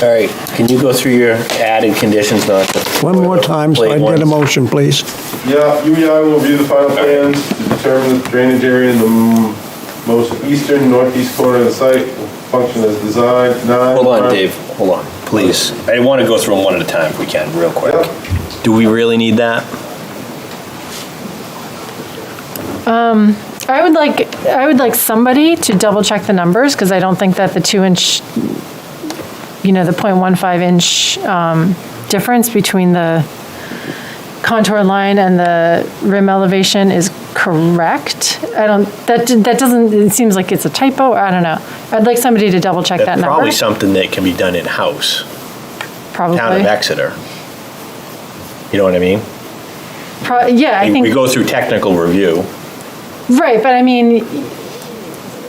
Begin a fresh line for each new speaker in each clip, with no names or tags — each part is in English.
All right, can you go through your added conditions, not just...
One more time, so I can get a motion, please.
Yeah, UEI will review the final plans to determine the drainage area in the m- most eastern northeast corner of the site will function as designed. Nine.
Hold on, Dave, hold on, please. I want to go through them one at a time if we can, real quick. Do we really need that?
I would like, I would like somebody to double check the numbers, because I don't think that the two inch, you know, the 0.15 inch um, difference between the contour line and the rim elevation is correct. I don't, that, that doesn't, it seems like it's a typo, I don't know. I'd like somebody to double check that
That's
number.
probably something that can be done in-house, town of
Probably.
Exeter. You know what I mean?
Pro- Yeah, I think.
We go through technical review.
Right, but I mean,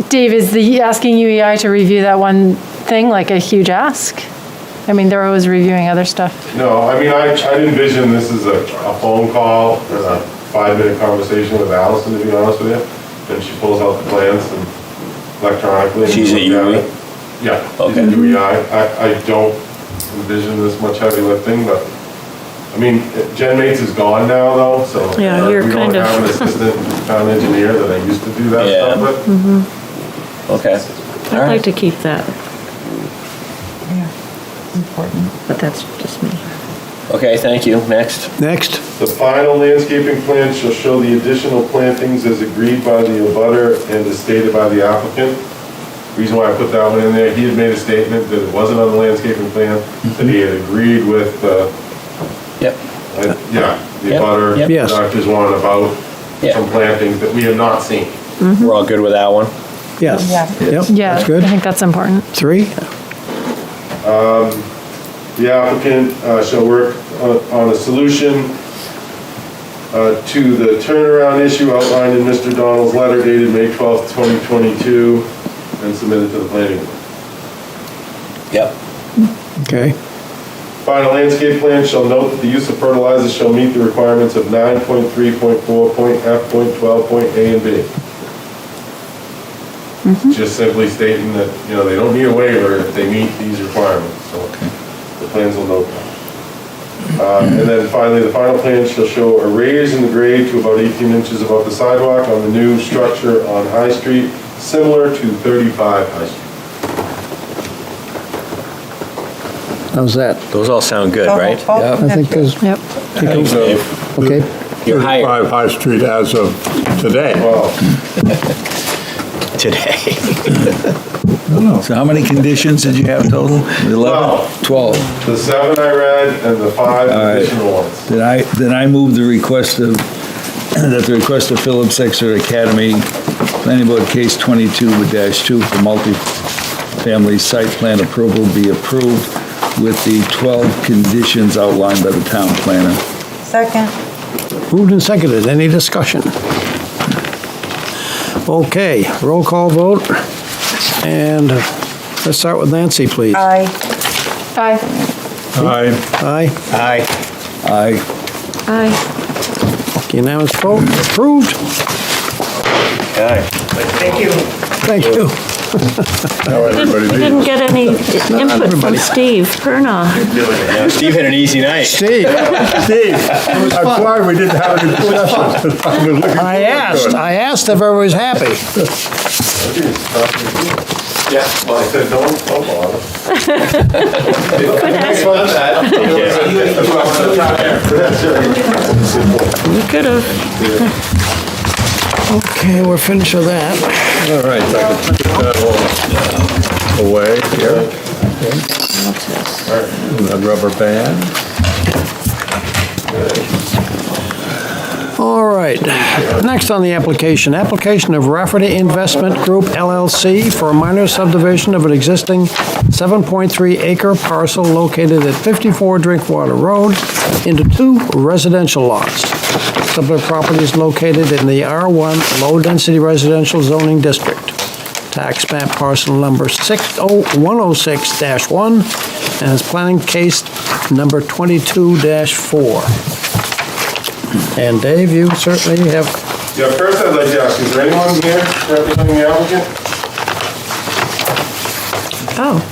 Dave, is the asking UEI to review that one thing like a huge ask? I mean, they're always reviewing other stuff.
No, I mean, I, I envision this as a, a phone call, or a five-minute conversation with Allison, to be honest with you. And she pulls out the plans and electronically. and
She's at
we
UEI?
look it. Yeah. she's at
Okay.
UEI. I, I don't envision this much heavy lifting, but, I mean, Jen Mates is gone now, though, so.
Yeah, you're kind of-
We don't have an assistant town engineer that I used to do that
Yeah.
stuff with.
Okay. All
I'd like
right.
to keep that. Important. But that's just me.
Okay, thank you. Next.
Next,
The final landscaping plan shall show the additional plantings as agreed by the abutter and as stated by the applicant. Reason why I put that one in there, he had made a statement that it wasn't on the landscaping plan, that he had agreed with, uh,
Yep.
uh, yeah, the
Yep,
abutter,
yep.
Yes.
Doctors Juan about
Yeah.
some plantings that we have not seen.
We're all good with that one?
yes. Yep,
Yeah,
that's
I
good.
think that's important.
Three,
The applicant uh, shall work on- on a solution uh, to the turnaround issue outlined in Mr. Donald's letter dated May 12th, 2022, and submitted to the planning board.
Yep.
okay,
Final landscape plan shall note that the use of fertilizers shall meet the requirements of 9.3.4, point F, point 12, point A and B. Just simply stating that, you know, they don't need a waiver if they meet these requirements, so the plans will note that. Uh, And then finally, the final plan shall show a raise in the grade to about 18 inches above the sidewalk on the new structure on High Street, similar to 35 High Street.
how's that?
Those all sound good, right?
I think there's,
Yep.
Thanks, Dave.
okay,
You're hired
35 High Street as of today.
Well,
today.
So how many conditions did you have total? 11? 12.
the seven I read and the five
right.
additional ones.
Did I, then I move the request of, that the request of Phillips Exeter Academy, Planning Board Case 22-2 for multi-family site plan approval be approved with the 12 conditions outlined by the town planner.
Second.
moved and seconded, any discussion? Okay, roll call vote, and let's start with Nancy, please.
Aye.
Aye.
Aye.
Aye,
Hi.
Aye.
Aye.
unanimous vote, approved,
Okay.
thank you.
Now everybody
You
leaves.
didn't get any input from
everybody.
Steve Perna.
Now, Steve had an easy night.
Steve,
Steve, I'm glad we didn't have any discussion. I've been looking
I asked, I asked if everybody was happy.
Yeah, well, I said, don't bump on it.
You could have.
Okay, we're finished with that.
All right, if I could put that all away here. And That rubber band.
All right, next on the application, application of Rafferty Investment Group LLC for a minor subdivision of an existing 7.3 acre parcel located at 54 Drinkwater Road into two residential lots. Subject property is located in the R1 Low Density Residential Zoning District. Tax map parcel number 60106-1 and is planning case number 22-4. And Dave, you certainly have,
Yeah, first I'd like to ask, is there anyone here representing the applicant?
Oh,